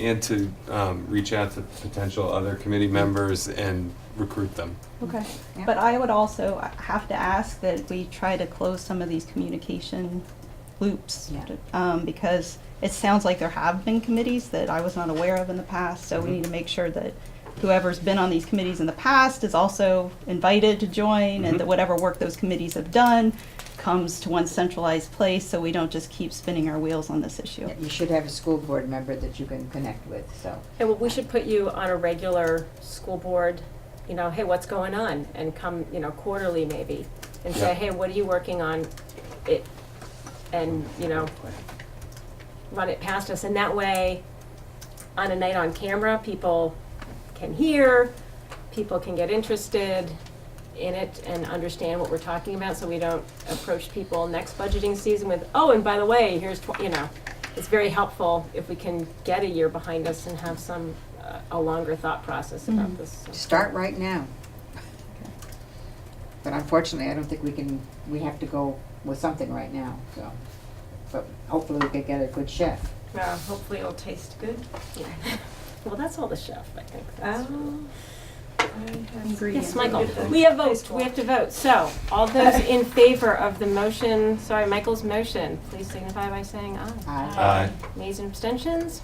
and to um, reach out to potential other committee members and recruit them. Okay, Yeah. but I would also have to ask that we try to close some of these communication loops. Yeah. Um, because it sounds like there have been committees that I was not aware of in the past, so we Mm-hmm. Mhm. need to make sure that whoever's been on these committees in the past is also invited to join, Mhm. Mm-hmm. and that whatever work those committees have done comes to one centralized place, so we don't just keep spinning our wheels on this issue. Yeah, You should have a school board member that you can connect with, so. And well, we should put you on a regular school board, you know, hey, what's going on? And come, you know, quarterly maybe, and Yeah. say, hey, what are you working on? It, and, you know, run it past us. And that way, on a night on camera, people can hear, people can get interested in it and understand what we're talking about, so we don't approach people next budgeting season with, oh, and by the way, here's, tw-" you know. It's very helpful if we can get a year behind us and have some, uh, a longer thought process about Mhm. this. so. Start right now. But unfortunately, I don't think we can, we have to go with something right now, so. But hopefully we can get a good chef. Uh, hopefully it'll taste good. Yeah. Well, that's all the chef, I think. That's- Ingredients. Yes, Michael, we have votes, we have to vote, so, all those in favor of the motion, sorry, Michael's motion, please signify by saying aye. Aye. Aye. Nays and abstentions?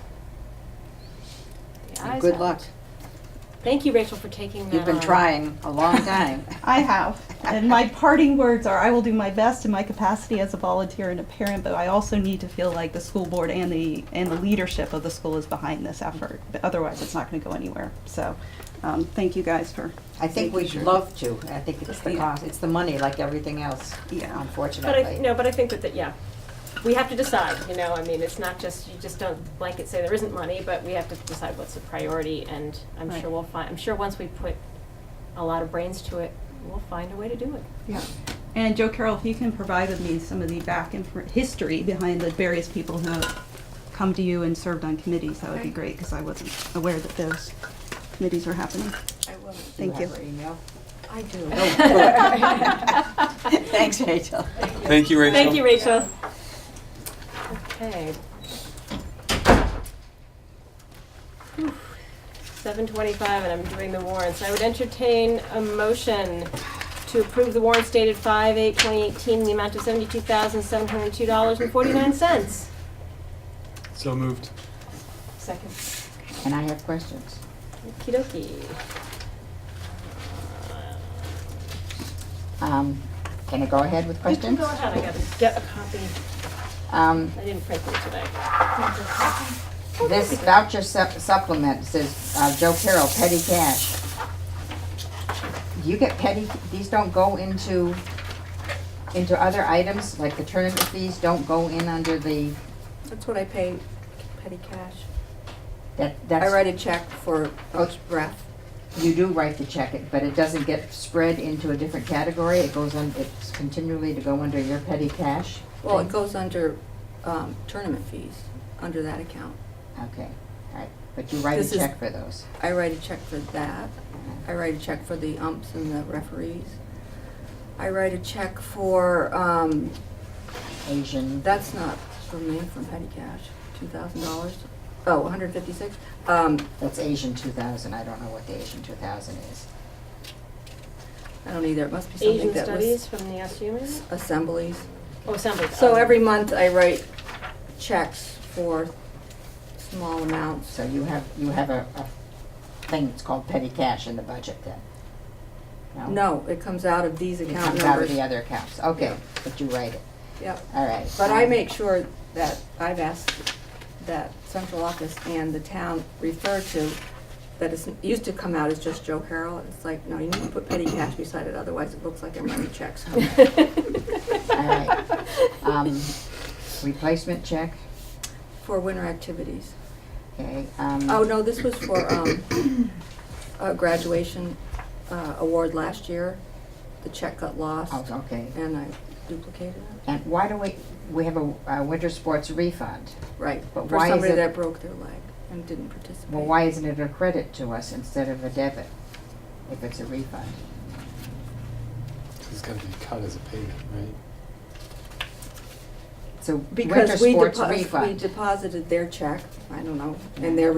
The And ayes Good have luck. it. Thank you, Rachel, for taking that You've been on. trying a long time. I have. And my parting words are I will do my best in my capacity as a volunteer and a parent, but I also need to feel like the school board and the and the leadership of the school is behind this effort. But otherwise, it's not going to go anywhere. So, um, thank you guys for. I think we'd love to. I think it's the Yeah. cost, it's the money like everything else, Yeah. But I, unfortunately. no, but I think that, that, yeah, we have to decide, you know, I mean, it's not just, you just don't blanket say there isn't money, but we have to decide what's the priority, and I'm Right. sure we'll find, I'm sure once we put a lot of brains to it, we'll find a way to do it. Yeah. And Joe Carroll, if you can provide with me some of the back and history behind the various people who have come to you and served on committees, that would be Okay. great because I wasn't aware that those committees were happening. I will. Do Thank you. have her email? Oh, I do. Thanks, Rachel. Thank you, Rachel. Thank you, Rachel. Okay. Seven twenty-five, and I'm doing the warrants. I would entertain a motion to approve the warrants dated five eight twenty eighteen, the amount of seventy-two thousand, seven hundred and two dollars and forty-nine cents. So moved. Second. And I have questions. Okey dokey. Um, Can I go ahead with You can questions? Go ahead, I gotta get a copy. Um, I didn't print them today. This voucher sup- supplement says uh, Joe Carroll, petty cash. Do you get petty, these don't go into, into other items, like the tournament fees don't go in under the, That's what I pay petty cash. that, I that's, write a check for each breath. you do write the check, it but it doesn't get spread into a different category, it goes on, it's continually to go under your petty cash? Well, it goes under um, tournament fees, under that account. Okay, all right, but you write This a is- check for those. I write a check for that. I write a check for the umps and the referees. I write a check for, um, Asian, that's not from me, from petty cash, two thousand dollars. Oh, one hundred fifty-six. Um, that's Asian two thousand, I don't know what the Asian two thousand is. I don't either. It must be something Asian that Studies was from the SU, maybe? assemblies. Oh, Assembly. So oh. every month I write checks for small amounts. So you have, you have a, a thing that's called petty cash in the budget then? No, it comes out of these It account comes out of numbers. the other accounts, okay, Yeah. but you write it, Yep. all right. But I um, make sure that I've asked that central office and the town refer to that it's, it used to come out as just Joe Carroll. It's like, no, you need to put petty cash beside it, otherwise it looks like I'm writing checks. All right, um, replacement check, For winter activities. okay, um. Oh, no, this was for, um, a graduation, uh, award last year. The check got lost oh, okay, and I duplicated it. and why do we, we have a, a winter sports refund, Right, But for why is somebody it- that broke their leg and didn't participate. well, why isn't it a credit to us instead of a debit? If it's a refund, It's gotta be cut as a payment, right? so winter Because we sports refund. depo- we deposited their check, I don't know, and their